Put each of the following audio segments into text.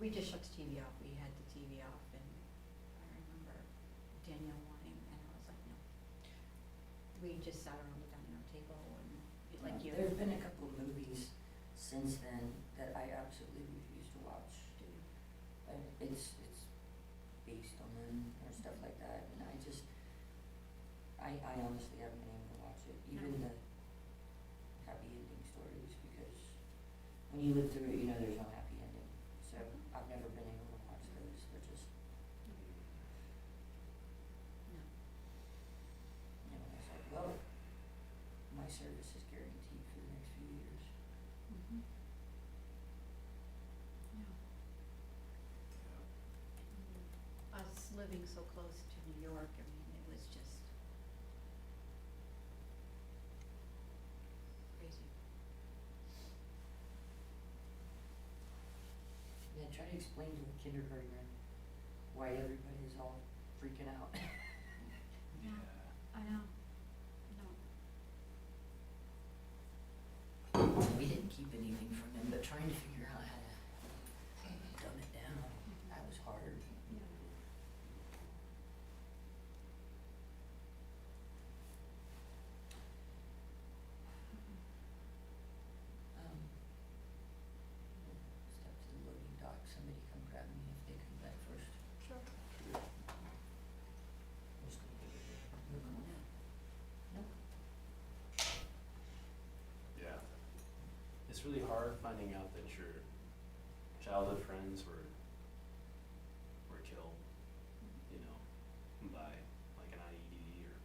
we just shut the TV off, we had the TV off, and I remember Danielle wanting, and I was like, no. We just sat around the dining room table and, like you, There've uh, been a couple of movies since then that I absolutely refuse to watch. But it's, it's based on them or stuff like that, and I just, I, I honestly haven't been able to watch it, even the happy ending stories, because when you live through it, you know there's no happy ending, so Mm-hmm. I've never been able to watch those, they're just, no, you know, it's like, well, my service is guaranteed for the next few years. Mm-hmm. mhm. No. us living so close to New York, I mean, it was just crazy. Yeah, try to explain to the kindergartner why everybody's all freaking out. Yeah. I know, no, We didn't keep anything from them, but trying to figure out how to dumb it down, that was hard. yeah. Um, Step to the loading dock, somebody come grab me if they come back first. Sure. Who's gonna be there? You're going out? No? Yeah. It's really hard finding out that your childhood friends were were killed, you know, by like an IED or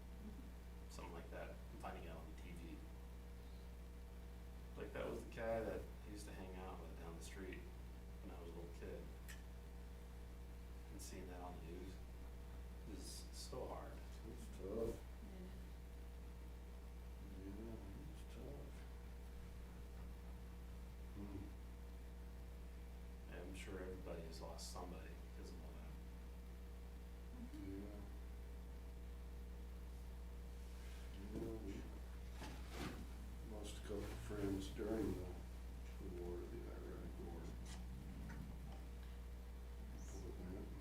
something like that. and finding out on TV. Like that was the guy that I used to hang out with down the street when I was a little kid. And seeing that on the news is so hard. It's Yeah. tough, yeah, it's tough. Mm. I'm sure everybody has lost somebody because of all that. Yeah. Yeah, we lost a couple of friends during the, the war, the Iraq War. People that went.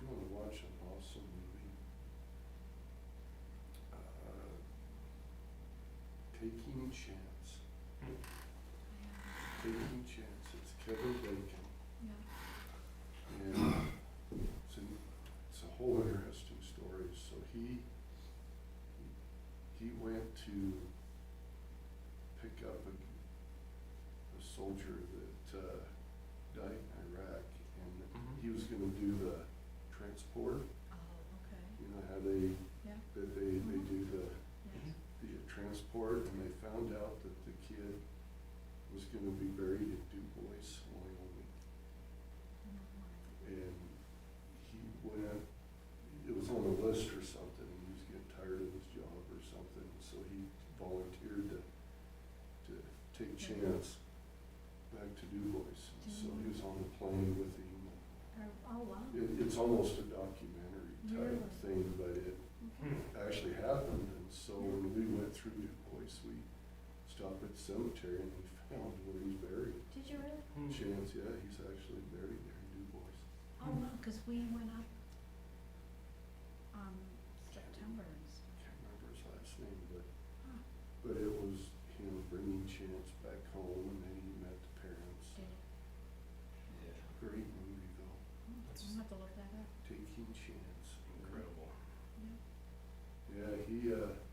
I'm gonna watch an awesome movie. Uh, Taking Chance, Taking Chance, it's Kevin Bacon. Yeah. And it's a, it's a whole interesting story, so he, he went to pick up a, a soldier that, uh, died in Iraq, and Mhm. he was gonna do the transport, Oh, okay, you know how they, yeah, that they, they do the, yeah. the transport, and they found out that the kid was gonna be buried in DuBois, Wyoming. and he went, it was on a list or something, and he was getting tired of his job or something, so he volunteered to, to take chance back to DuBois. And So he was on the plane with him. Oh, oh, wow, It, it's almost a documentary type Really? thing, but it okay, actually happened, and so when we went through DuBois, we stopped at the cemetery and we found where he's buried. did you really? Chance, yeah, he's actually buried there in DuBois. Oh, wow, cause we went up, um, September and stuff. can't remember his last name, but, Huh. but it was him bringing Chance back home and then he met the parents. Did it? Yeah, Great movie though, Oh, That's- I'll have to look that up, Taking Chance. incredible. yeah. Yeah, he, uh, uh,